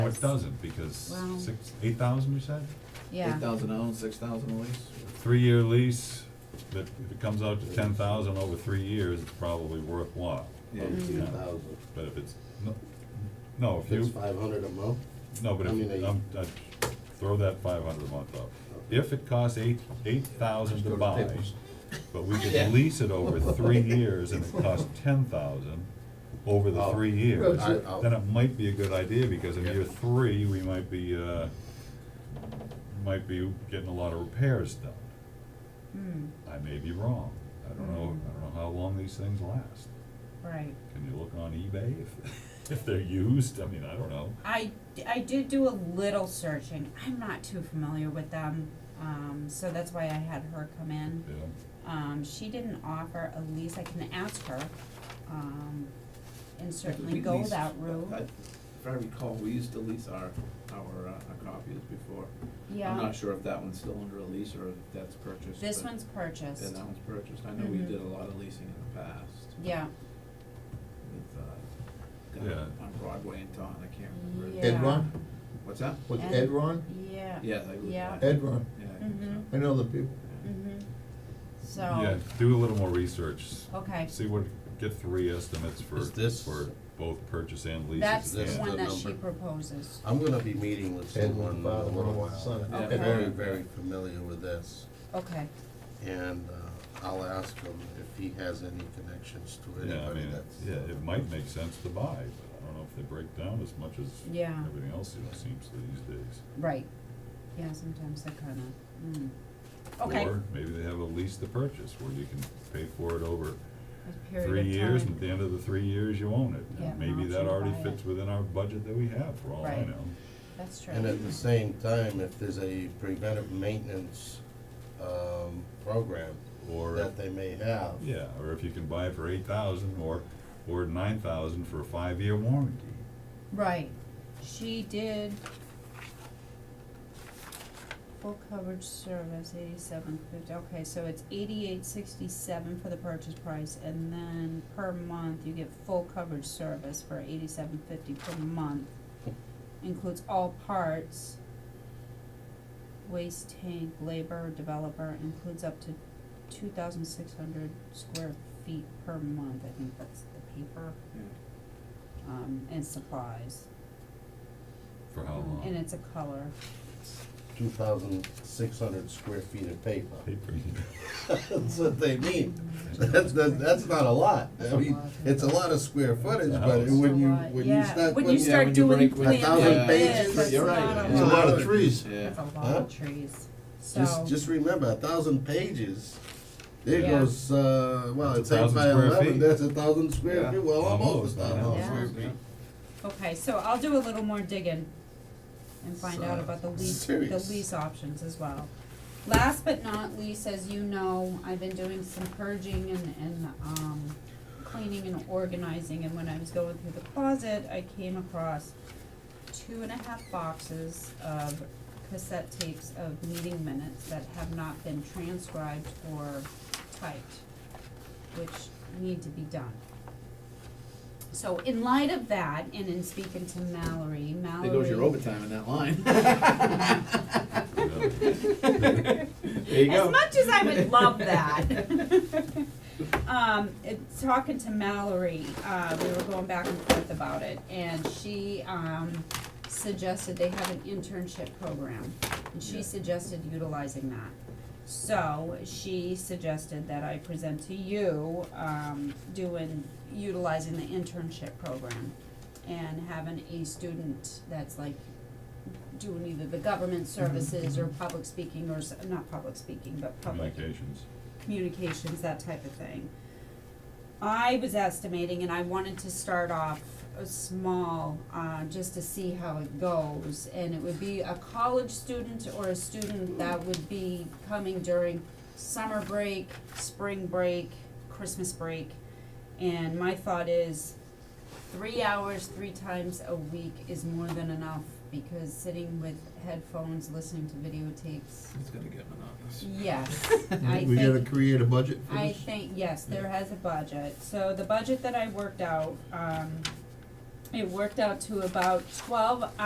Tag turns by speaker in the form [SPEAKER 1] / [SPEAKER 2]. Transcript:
[SPEAKER 1] What doesn't, because
[SPEAKER 2] Well-
[SPEAKER 1] six, eight thousand you said?
[SPEAKER 2] Yeah,
[SPEAKER 3] Eight thousand owned, six thousand a lease?
[SPEAKER 1] Three-year lease, that if it comes out to ten thousand over three years, it's probably worthwhile.
[SPEAKER 3] Yeah,
[SPEAKER 2] Mm-hmm.
[SPEAKER 1] you
[SPEAKER 4] Two
[SPEAKER 1] know.
[SPEAKER 4] thousand,
[SPEAKER 1] But if it's, no, no, if
[SPEAKER 4] that's
[SPEAKER 1] you,
[SPEAKER 4] five hundred a month,
[SPEAKER 1] no, but
[SPEAKER 4] I mean,
[SPEAKER 1] if,
[SPEAKER 4] they-
[SPEAKER 1] I'm, I, throw that five hundred a month up. If it costs eight, eight thousand to buy, but we
[SPEAKER 3] Yeah.
[SPEAKER 1] could lease it over three years and it costs ten thousand over the
[SPEAKER 4] Oh.
[SPEAKER 1] three years,
[SPEAKER 4] I- I'll-
[SPEAKER 1] then it might be a good idea, because in year three, we might be, uh, might be getting a lot of repairs done.
[SPEAKER 2] hmm,
[SPEAKER 1] I may be wrong, I don't know, I don't know how long these things last.
[SPEAKER 2] right.
[SPEAKER 1] Can you look on eBay if, if they're used? I mean, I don't know.
[SPEAKER 2] I, I did do a little searching, I'm not too familiar with them, um, so that's why I had her come in.
[SPEAKER 1] Yeah.
[SPEAKER 2] Um, she didn't offer a lease, I can ask her, um, and certainly
[SPEAKER 3] We
[SPEAKER 2] go
[SPEAKER 3] leased-
[SPEAKER 2] that route.
[SPEAKER 3] I- If I recall, we used to lease our, our, uh, our copies before. I'm
[SPEAKER 2] Yeah,
[SPEAKER 3] not sure if that one's still under a lease or if that's purchased.
[SPEAKER 2] this
[SPEAKER 3] but-
[SPEAKER 2] one's
[SPEAKER 3] Yeah,
[SPEAKER 2] purchased,
[SPEAKER 3] that one's purchased. I know we
[SPEAKER 2] Mhm.
[SPEAKER 3] did a lot of leasing in the past
[SPEAKER 2] yeah,
[SPEAKER 3] with, uh,
[SPEAKER 1] Yeah.
[SPEAKER 3] down on Broadway and Taunton, I can't remember.
[SPEAKER 2] Yeah.
[SPEAKER 5] Edron,
[SPEAKER 3] What's that?
[SPEAKER 5] was it
[SPEAKER 2] Ed-
[SPEAKER 5] Edron?
[SPEAKER 2] yeah,
[SPEAKER 3] Yeah, I believe
[SPEAKER 2] Yeah.
[SPEAKER 3] that.
[SPEAKER 5] Edron,
[SPEAKER 3] Yeah. I think so.
[SPEAKER 2] mhm,
[SPEAKER 5] I know the people.
[SPEAKER 3] Yeah.
[SPEAKER 2] mhm,
[SPEAKER 1] Yeah,
[SPEAKER 2] so,
[SPEAKER 1] do a little more research,
[SPEAKER 2] okay,
[SPEAKER 1] see what, get three estimates for,
[SPEAKER 4] Is this-
[SPEAKER 1] for both purchase and leases.
[SPEAKER 2] that's the
[SPEAKER 4] this
[SPEAKER 1] and-
[SPEAKER 2] one
[SPEAKER 4] the
[SPEAKER 2] that she
[SPEAKER 4] number?
[SPEAKER 2] proposes,
[SPEAKER 4] I'm gonna be meeting with
[SPEAKER 5] Ed
[SPEAKER 4] someone in a
[SPEAKER 5] father,
[SPEAKER 4] little
[SPEAKER 5] mother, son.
[SPEAKER 4] while.
[SPEAKER 3] Yeah.
[SPEAKER 4] I'm very,
[SPEAKER 5] Edron.
[SPEAKER 4] very familiar with this,
[SPEAKER 2] okay,
[SPEAKER 4] and uh, I'll ask him if he has any connections to
[SPEAKER 1] Yeah, I
[SPEAKER 4] anybody
[SPEAKER 1] mean,
[SPEAKER 4] that's.
[SPEAKER 1] yeah, it might make sense to buy, but I don't know if they break down as much as
[SPEAKER 2] yeah,
[SPEAKER 1] everything else it seems to these days.
[SPEAKER 2] right, yeah, sometimes they kinda, mm, okay.
[SPEAKER 1] Or maybe they have a lease to purchase where you can pay for it over
[SPEAKER 2] a period
[SPEAKER 1] three
[SPEAKER 2] of
[SPEAKER 1] years,
[SPEAKER 2] time.
[SPEAKER 1] and at the end of the three years, you own it.
[SPEAKER 2] Yeah,
[SPEAKER 1] And
[SPEAKER 2] an
[SPEAKER 1] Maybe
[SPEAKER 2] option
[SPEAKER 1] that
[SPEAKER 2] to
[SPEAKER 1] already
[SPEAKER 2] buy it.
[SPEAKER 1] fits within our budget that we have, for all I
[SPEAKER 2] Right.
[SPEAKER 1] know.
[SPEAKER 2] That's true.
[SPEAKER 4] And at the same time, if there's a preventive maintenance, um, program
[SPEAKER 1] Or
[SPEAKER 4] that they may have,
[SPEAKER 1] Yeah, or if you can buy it for eight thousand or, or nine thousand for a five-year warranty.
[SPEAKER 2] Right, she did full coverage service, eighty-seven fifty, okay, so it's eighty-eight sixty-seven for the purchase price, and then per month, you get full coverage service for eighty-seven fifty per month. Includes all parts, waste tank, labor, developer, includes up to two thousand six hundred square feet per month, I think that's the paper,
[SPEAKER 3] Yeah.
[SPEAKER 2] um, and supplies.
[SPEAKER 1] For how
[SPEAKER 2] Um, And
[SPEAKER 1] long?
[SPEAKER 2] it's a color.
[SPEAKER 4] two thousand six hundred square feet of paper.
[SPEAKER 1] Paper.
[SPEAKER 4] That's what they mean. That's, that, that's not a lot. I mean, it's a lot of square footage,
[SPEAKER 1] That's a
[SPEAKER 4] but
[SPEAKER 1] house.
[SPEAKER 4] when you,
[SPEAKER 2] So, uh,
[SPEAKER 4] when you
[SPEAKER 2] yeah,
[SPEAKER 4] start
[SPEAKER 2] When you
[SPEAKER 4] putting,
[SPEAKER 2] start
[SPEAKER 3] when you
[SPEAKER 2] doing
[SPEAKER 3] break with
[SPEAKER 4] a
[SPEAKER 2] plans
[SPEAKER 4] thousand
[SPEAKER 2] like this,
[SPEAKER 4] pages,
[SPEAKER 2] that's
[SPEAKER 3] you're
[SPEAKER 2] not
[SPEAKER 3] right.
[SPEAKER 2] a
[SPEAKER 4] it's a lot
[SPEAKER 2] lot.
[SPEAKER 4] of trees.
[SPEAKER 3] Yeah.
[SPEAKER 2] That's a lot
[SPEAKER 4] Huh?
[SPEAKER 2] of trees. So,
[SPEAKER 4] Just, just remember, a thousand pages, there
[SPEAKER 2] Yeah.
[SPEAKER 4] goes, uh, well,
[SPEAKER 1] That's
[SPEAKER 4] it's
[SPEAKER 1] a
[SPEAKER 4] eight
[SPEAKER 1] thousand
[SPEAKER 4] by
[SPEAKER 1] square
[SPEAKER 4] eleven,
[SPEAKER 1] feet.
[SPEAKER 4] that's a thousand square
[SPEAKER 3] Yeah.
[SPEAKER 4] feet, well, almost a thousand
[SPEAKER 2] yeah.
[SPEAKER 4] square
[SPEAKER 3] Yeah.
[SPEAKER 4] feet.
[SPEAKER 2] okay, so I'll do a little more digging and find out
[SPEAKER 4] So,
[SPEAKER 2] about the lease, the
[SPEAKER 4] serious.
[SPEAKER 2] lease options as well. Last but not least, as you know, I've been doing some purging and, and, um, cleaning and organizing, and when I was going through the closet, I came across two and a half boxes of cassette tapes of meeting minutes that have not been transcribed or typed, which need to be done. So in light of that, and in speaking to Mallory, Mallory.
[SPEAKER 3] There goes your overtime in that line. There you go.
[SPEAKER 2] As much as I would love that. Um, it, talking to Mallory, uh, we were going back and forth about it, and she, um, suggested they have an internship program, and she
[SPEAKER 3] Yeah.
[SPEAKER 2] suggested utilizing that. So, she suggested that I present to you, um, doing, utilizing the internship program and having a student that's like doing either the government services or public speaking or, s- not public speaking, but public
[SPEAKER 1] Communications.
[SPEAKER 2] communications, that type of thing. I was estimating, and I wanted to start off uh, small, uh, just to see how it goes. And it would be a college student or a student that would be coming during summer break, spring break, Christmas break. And my thought is, three hours, three times a week is more than enough, because sitting with headphones, listening to videotapes,
[SPEAKER 3] It's gonna get monotonous.
[SPEAKER 2] yes, I
[SPEAKER 5] We gotta
[SPEAKER 2] think
[SPEAKER 5] create a budget for
[SPEAKER 2] I
[SPEAKER 5] this.
[SPEAKER 2] think, yes, there has a budget, so the budget that I worked out, um, it worked out to about twelve